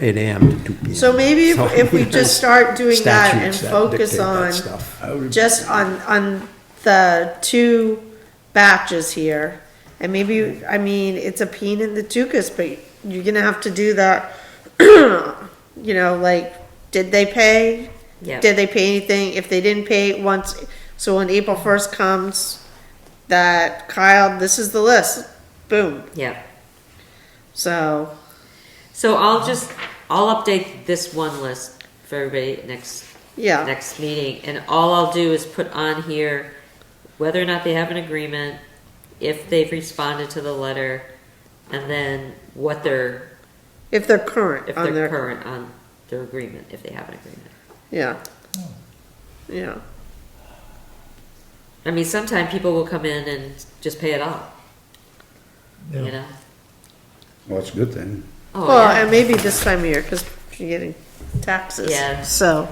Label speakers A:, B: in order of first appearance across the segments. A: 8 AM to 2 PM.
B: So maybe if- if we just start doing that and
A: Statutes that
B: focus
A: dictate that
B: on-
A: stuff.
B: just on, on the two batches here. And maybe, I mean, it's a pain in the tuchus, but you're gonna have to do that, you know, like, did they pay?
C: Yeah.
B: Did they pay anything? If they didn't pay once, so when April first comes, that Kyle, this is the list, boom,
C: Yeah.
B: so.
C: So I'll just, I'll update this one list for everybody next,
B: Yeah.
C: next meeting. And all I'll do is put on here whether or not they have an agreement, if they've responded to the letter, and then what they're,
B: If they're current
C: if
B: on
C: they're
B: their,
C: current on their agreement, if they have an agreement.
B: yeah. Yeah,
C: I mean, sometime people will come in and just pay it off, you know?
D: Well, that's a good thing.
C: Oh,
B: well,
C: yeah.
B: and maybe this time of year, cause you're getting taxes,
C: Yeah.
B: so.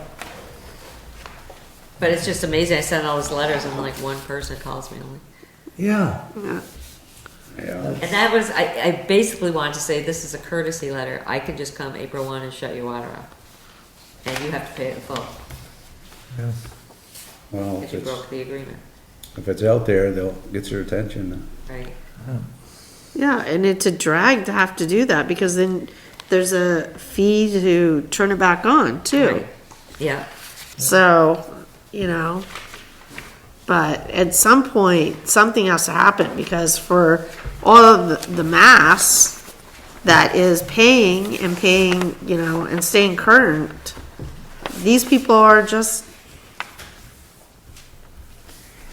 C: But it's just amazing. I sent all these letters and like one person calls me. I'm like,
A: Yeah,
D: Yeah.
C: And that was, I, I basically wanted to say, this is a courtesy letter. I can just come April one and shut your water off. And you have to pay it in full
D: Well,
C: if
D: if
C: you
D: it's,
C: broke the agreement,
D: if it's out there, they'll get your attention.
C: right?
B: Yeah, and it's a drag to have to do that because then there's a fee to turn it back on too.
C: Right. Yeah,
B: So, you know, but at some point, something has to happen because for all of the- the mass that is paying and paying, you know, and staying current, these people are just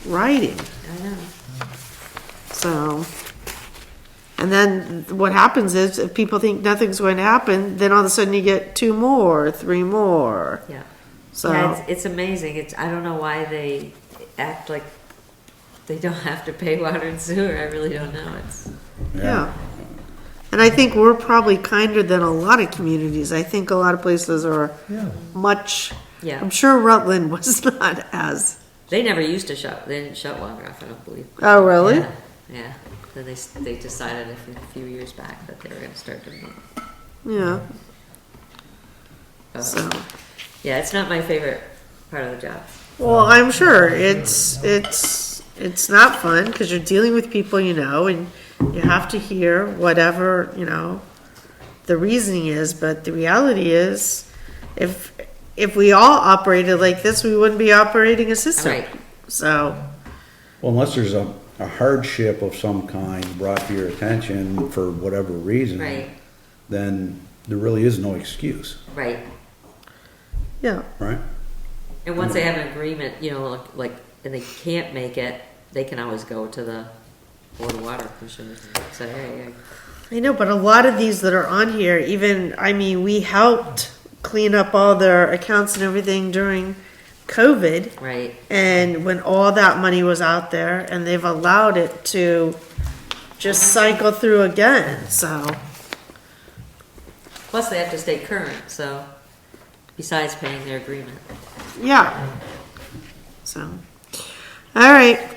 B: writing.
C: I know.
B: So, and then what happens is if people think nothing's going to happen, then all of a sudden you get two more, three more.
C: Yeah. Yeah,
B: So,
C: it's, it's amazing. It's, I don't know why they act like they don't have to pay water and sewer. I really don't know. It's,
B: yeah. And I think we're probably kinder than a lot of communities. I think a lot of places are much,
C: yeah.
B: I'm sure Rutland was not as,
C: They never used to shut, they didn't shut water off, I don't believe.
B: oh, really?
C: Yeah, Yeah. Then they, s- they decided a few- a few years back that they were gonna start doing it.
B: Yeah,
C: Uh,
B: so.
C: Yeah, it's not my favorite part of the job.
B: Well, I'm sure it's, it's, it's not fun because you're dealing with people you know and you have to hear whatever, you know, the reasoning is, but the reality is if, if we all operated like this, we wouldn't be operating a system.
C: Right.
B: So,
D: Well, unless there's a, a hardship of some kind brought to your attention for whatever reason.
C: Right.
D: Then there really is no excuse,
C: Right.
B: yeah,
D: right?
C: And once they have an agreement, you know, like, like, and they can't make it, they can always go to the Board of Water Commissioners and say, hey, I-
B: I know, but a lot of these that are on here, even, I mean, we helped clean up all their accounts and everything during COVID.
C: right,
B: And when all that money was out there and they've allowed it to just cycle through again, so,
C: plus they have to stay current, so, besides paying their agreement.
B: yeah. So, all right.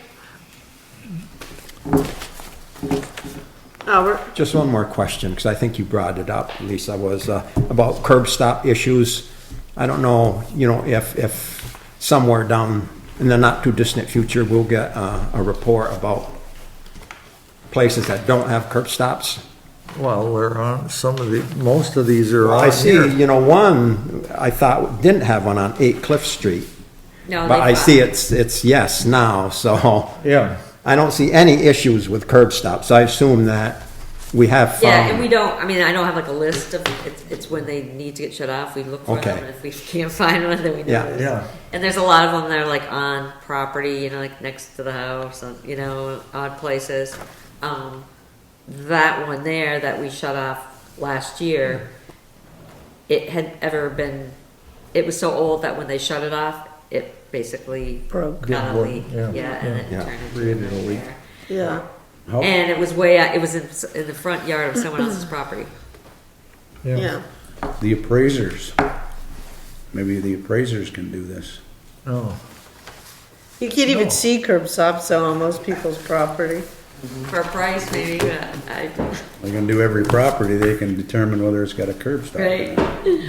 B: Albert,
A: just one more question, because I think you brought it up, Lisa, was uh, about curb stop issues. I don't know, you know, if, if somewhere down in the not too distant future, we'll get uh, a report about places that don't have curb stops.
E: Well, we're on, some of the, most of these are
A: Well, I
E: on
A: see,
E: here.
A: you know, one, I thought didn't have one on 8 Cliff Street,
C: No,
A: but
C: they
A: I see
C: filed.
A: it's, it's yes now, so.
E: Yeah.
A: I don't see any issues with curb stops. I assume that we have
C: Yeah,
E: Um,
C: and we
A: found,
C: don't, I mean, I don't have like a list of, it's, it's when they need to get shut off, we look for them,
A: Okay.
C: and if we can't find one, then we
A: Yeah.
C: know.
E: Yeah.
C: And there's a lot of them that are like on property, you know, like next to the house, on, you know, odd places. Um, that one there that we shut off last year, it had ever been, it was so old that when they shut it off, it basically
B: Broke.
C: Got a
E: Yeah,
C: leak, yeah,
E: yeah,
C: and then
A: yeah.
C: it turned into
E: Created a
C: a
E: leak.
C: nightmare.
B: yeah,
D: How-
C: And it was way out, it was in, s- in the front yard of someone else's property.
B: yeah.
D: The appraisers. Maybe the appraisers can do this.
E: Oh,
B: You can't even see curb stops on most people's property.
C: for a price maybe, but I,
D: They're gonna do every property, they can determine whether it's got a curb stop or not.
C: right?